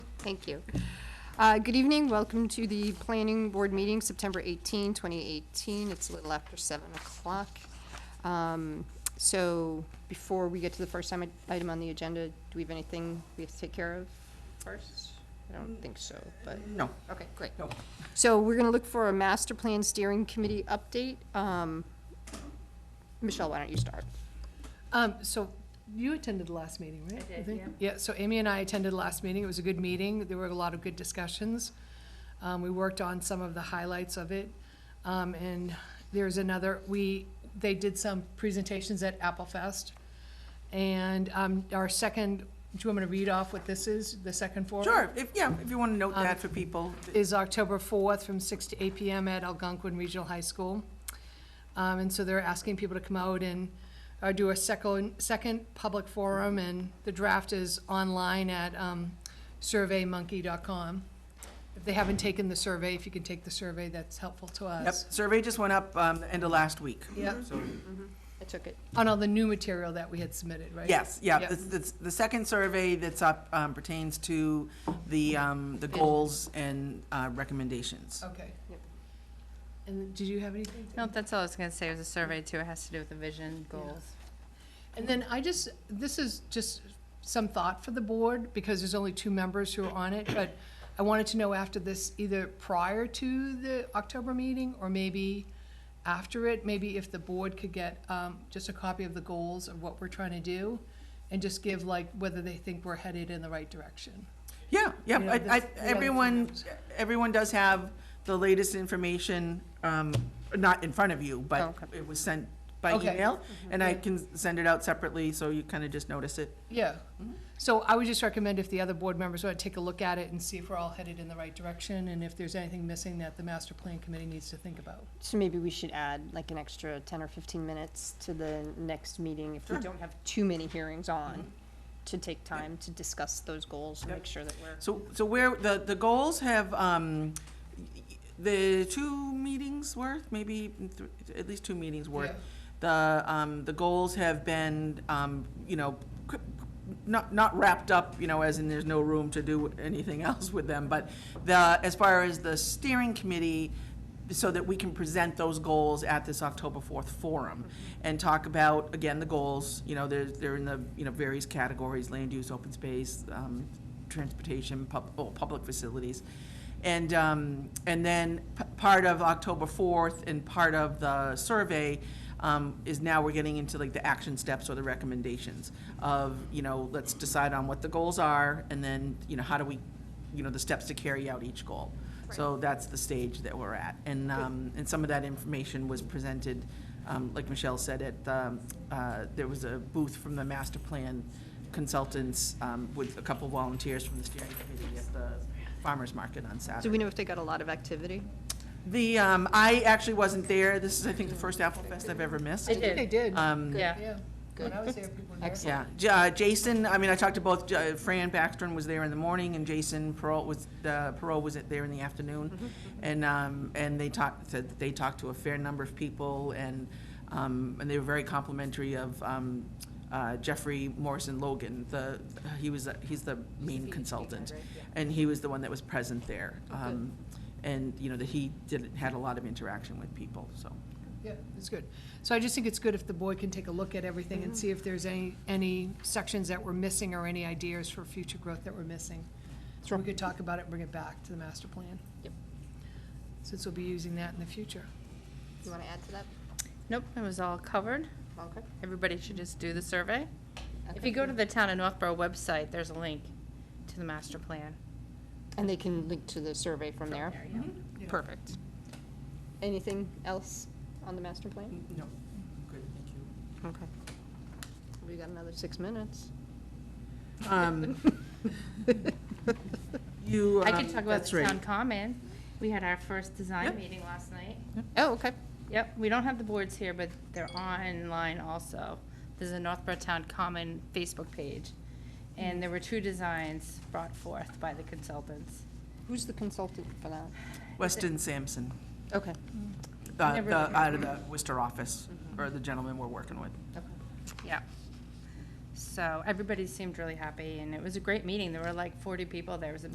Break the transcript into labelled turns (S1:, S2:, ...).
S1: Thank you. Uh, Good evening, welcome to the Planning Board meeting, September 18, 2018. It's a little after 7 o'clock. Um, So before we get to the first time- item on the agenda, do we have anything we have to take care of first? I don't think so, but,
S2: No.
S1: okay, great.
S2: No.
S1: So we're going to look for a master plan steering committee update. Um, Michelle, why don't you start?
S3: Um, so you attended the last meeting, right?
S4: I did,
S3: think? Yeah, so Amy and I attended the last meeting. It was a good meeting. There were a lot of good discussions. Um, we worked on some of the highlights of it. Um, and there's another, we, they did some presentations at Apple Fest. And, um, our second, do you want me to read off what this is, the second forum?
S2: Sure, if, yeah, if you want to note
S3: Um,
S2: that for people.
S3: is October 4th from 6 to 8 PM at Algonquin Regional High School. Um, And so they're asking people to come out and uh, do a second, second public forum, and the draft is online at um, surveymonkey.com. If they haven't taken the survey, if you can take the survey, that's helpful to
S2: Yep,
S3: us.
S2: survey just went up, um, the end of last week.
S3: Yep.
S2: So,
S1: I took it.
S3: On all the new material that we had submitted, right?
S2: yes, yeah,
S3: Yep.
S2: the, the, the second survey that's up, um, pertains to the, um, the goals and, uh, recommendations.
S3: Okay.
S1: Yep.
S3: And did you have anything?
S4: No, that's all I was gonna say, it was a survey too, it has to do with the vision, goals.
S3: And then I just, this is just some thought for the board, because there's only two members who are on it, but I wanted to know after this, either prior to the October meeting, or maybe after it, maybe if the board could get, um, just a copy of the goals of what we're trying to do, and just give like whether they think we're headed in the right direction.
S2: Yeah, yeah,
S3: You know,
S2: I, I,
S3: this- yeah.
S2: everyone, everyone does have the latest information, um, not in front of you, but
S4: Okay.
S2: it was sent by
S3: Okay. Mm-hmm.
S2: email, and I can send it out separately, so you kind of just notice it.
S3: Yeah, so I would just recommend if the other board members want to take a look at it and see if we're all headed in the right direction, and if there's anything missing that the master plan committee needs to think about.
S1: So maybe we should add like an extra ten or fifteen minutes to the next meeting if we don't have too many hearings on, to take time to discuss those goals and
S2: Yep.
S1: make sure that we're.
S2: So, so where, the, the goals have, um, the two meetings worth, maybe, th- at least two meetings worth.
S3: Yeah.
S2: The, um, the goals have been, um, you know, c- not, not wrapped up, you know, as in there's no room to do anything else with them, but the, as far as the steering committee, so that we can present those goals at this October fourth forum and talk about, again, the goals, you know, they're, they're in the, you know, various categories, land use, open space, um, transportation, pub, oh, public facilities. And, um, and then p- part of October fourth and part of the survey, um, is now we're getting into like the action steps or the recommendations of, you know, let's decide on what the goals are and then, you know, how do we, you know, the steps to carry out each goal. So that's the stage that we're at. And, um, and some of that information was presented, um, like Michelle said, at, um, uh, there was a booth from the master plan consultants, um, with a couple volunteers from the steering committee at the farmer's market on Saturday.
S1: Do we know if they got a lot of activity?
S2: The, um, I actually wasn't there. This is, I think, the first Apple Fest I've ever missed.
S4: I did.
S3: They did.
S2: Um,
S4: Yeah.
S3: Yeah, when I was there, people were there.
S2: Yeah, J- uh, Jason, I mean, I talked to both, J- Fran Backstrom was there in the morning, and Jason Perot was, uh, Perot was there in the afternoon. And, um, and they talked, said that they talked to a fair number of people, and, um, and they were very complimentary of, um, uh, Jeffrey Morrison Logan, the, he was, uh, he's the E main consultant. And he was the one that was present there. Um, And, you know, that he did, had a lot of interaction with people, so.
S3: Yeah, it's good. So I just think it's good if the board can take a look at everything and see if there's any, any sections that we're missing or any ideas for future growth that we're missing. So we could talk about it, and bring it back to the master plan.
S1: Yep.
S3: Since we'll be using that in the future.
S1: You wanna add to that?
S4: Nope, it was all covered,
S1: Okay.
S4: everybody should just do the survey. If you go to the town of Northborough website, there's a link to the master plan.
S1: And they can link to the survey from there.
S4: yeah.
S3: Yeah.
S4: Perfect.
S1: Anything else on the master plan?
S2: No, good, thank you.
S1: Okay. We got another six minutes.
S2: Um, You.
S4: I
S2: um,
S4: can talk about
S2: that's
S4: the
S2: right.
S4: town common, we had our first
S2: Yep.
S4: design meeting last night.
S1: Oh, okay.
S4: Yep, we don't have the boards here, but they're online also. There's a Northborough Town Common Facebook page, and there were two designs brought forth by the consultants.
S1: Who's the consultant for that?
S2: Weston Sampson,
S1: Okay.
S2: uh,
S4: Never
S2: the,
S4: mind.
S2: out of the Worcester office,
S4: Mm-hmm.
S2: or the gentleman we're working with.
S4: Yeah. So everybody seemed really happy, and it was a great meeting. There were like 40 people. There It was a